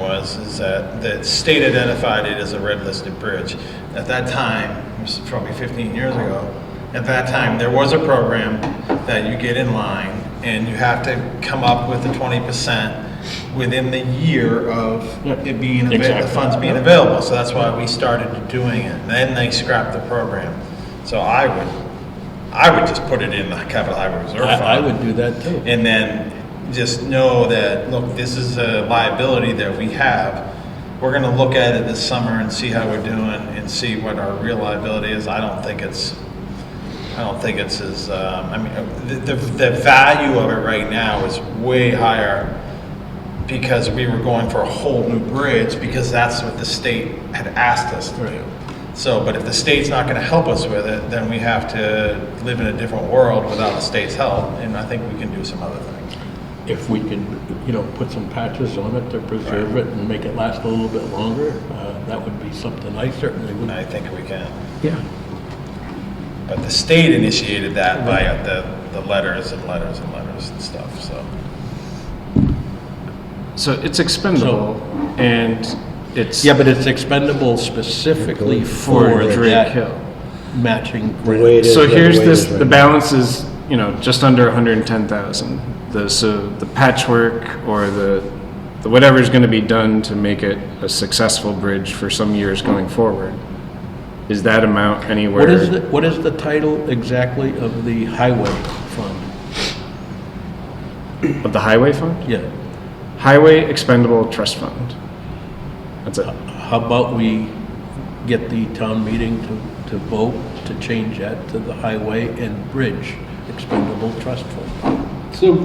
else is that the state identified it as a red listed bridge. At that time, it was probably 15 years ago, at that time, there was a program that you get in line and you have to come up with the 20% within the year of Yep. it being, avail- the Exactly. funds being available. So that's why we started doing it. Then they scrapped the program. So I would, I would just put it in the capital highway reserve fund. I, I would do that too. And then just know that, look, this is a liability that we have. We're gonna look at it this summer and see how we're doing and see what our real liability is. I don't think it's, I don't think it's as, um, I mean, the, the, the value of it right now is way higher because we were going for a whole new bridge because that's what the state had asked us to do. So, but if the state's not gonna help us with it, then we have to live in a different world without the state's help, and I think we can do some other things. If we can, you know, put some patches on it to preserve it and make it last a little bit longer, uh, that would be something I certainly And would. I think we can. Yeah. But the state initiated Mm-hmm. that by the, the letters and letters and letters and stuff, so. So it's expendable, and it's Yeah, but it's expendable specifically for for Drake that Hill. matching The grant. way it is, So the here's way it this, is right the now. balance is, you know, just under hundred and ten thousand. The, so the patchwork or the, the whatever's gonna be done to make it a successful bridge for some years going forward. Is that amount anywhere? What is, the- what is the title exactly of the highway fund? Of the highway fund? Yeah. Highway expendable trust fund. That's it. How about we get the town meeting to, to vote to change that to the highway and bridge expendable trust fund? So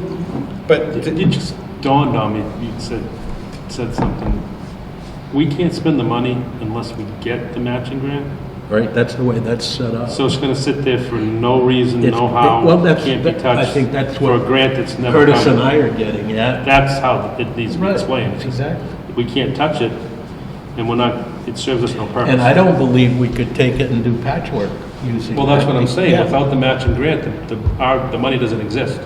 But it just dawned on me, you said, said something. We can't spend the money unless we get the matching grant. Right, that's the way that's set up. So it's gonna sit there for no reason, It's- no how, well, that's- can't be that- I touched. think that's For a what grant that's never Curtis and coming. I are getting at. That's how it needs to be explained. Exactly. We can't touch it, and we're not, it serves us no purpose. And I don't believe we could take it and do patchwork using. Well, that's what I'm saying, Yeah. without the matching grant, the, the, our, the money doesn't exist.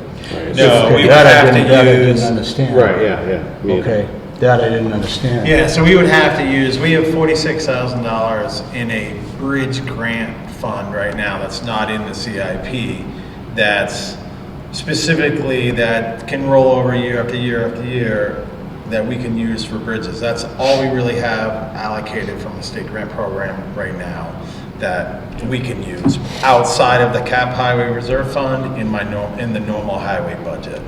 No, we would That I have didn't- That I to didn't use. understand. Right, yeah, yeah. me either. Okay, that I didn't understand. Yeah, so we would have to use, we have forty-six thousand dollars in a bridge grant fund right now that's not in the CIP. That's specifically that can roll over year after year after year that we can use for bridges. That's all we really have allocated from the state grant program right now that we can use outside of the cap highway reserve fund in my norm, in the normal highway budget.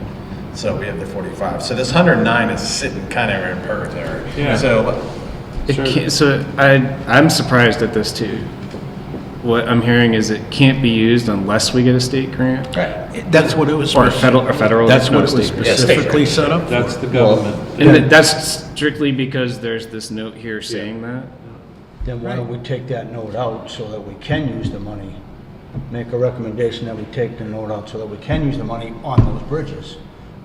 So we have the forty-five. So this hundred and nine is sitting kind of in purgatory. Yeah. So uh, It Sure. can't, so I, I'm surprised at this too. What I'm hearing is it can't be used unless we get a state grant That's what it was. or a federal, or federal. That's not what it a was state grant. specifically set up. for. That's the government. And that- that's strictly because there's this note here saying that. Then why don't we take that note out so that we can use the money? Make a recommendation that we take the note out so that we can use the money on those bridges.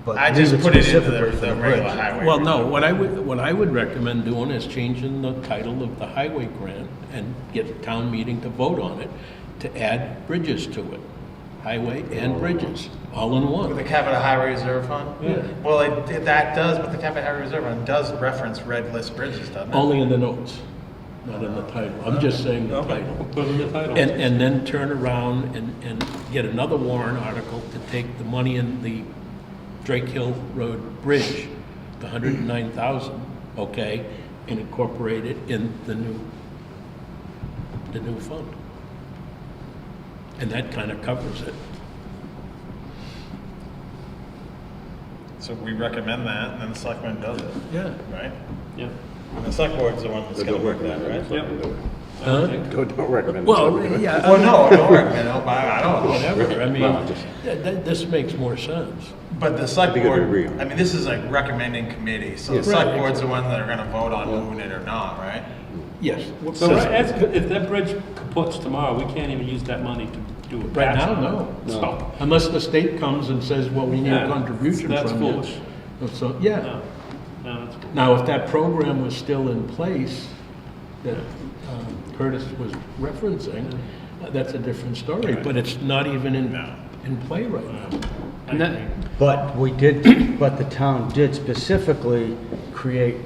But I just leave put it into the, specifically for the bridge. regular highway. Well, no, what I would, what I would recommend doing is changing the title of the highway grant and get a town meeting to vote on it, to add bridges to it. Highway and bridges, all in With the one. capital highway reserve fund? Well, it, it- that does, but the capital highway reserve fund does reference red list bridges, doesn't it? Only in the notes, not in the title. I'm just saying the title. Put in the title. And, and then turn around and, and get another warrant article to take the money in the Drake Hill Road Bridge, the hundred and nine thousand, okay, and incorporate it in the new, the new fund. And that kind of covers it. So we recommend that, and then the selectman does it, Yeah. right? Yeah. And the select board's the one that's So gonna don't work that, recommend it. right? so don't do it. Huh? Don't- Don't recommend it. so don't do Well, it. yeah, Well, uh, no, I don't recommend, it, but I I don't, know. whatever, I mean, Well, just- th- th- this makes more sense. but the select think it'd be board, real. I mean, this is like recommending committee, so the Yes. select board's the one that are gonna vote on moving it or not, right? Yes. So that's- if that bridge caputs tomorrow, we can't even use that money to do a patch. Right now, no. So, Unless the state comes and says, well, we need a Yeah, contribution from you. that's foolish. So, yeah. no, no, that's cool. Now, if that program was still in place that um, Curtis was referencing, uh, that's a different story, but it's not even in, in play right now. And that, But we did, but the town did specifically create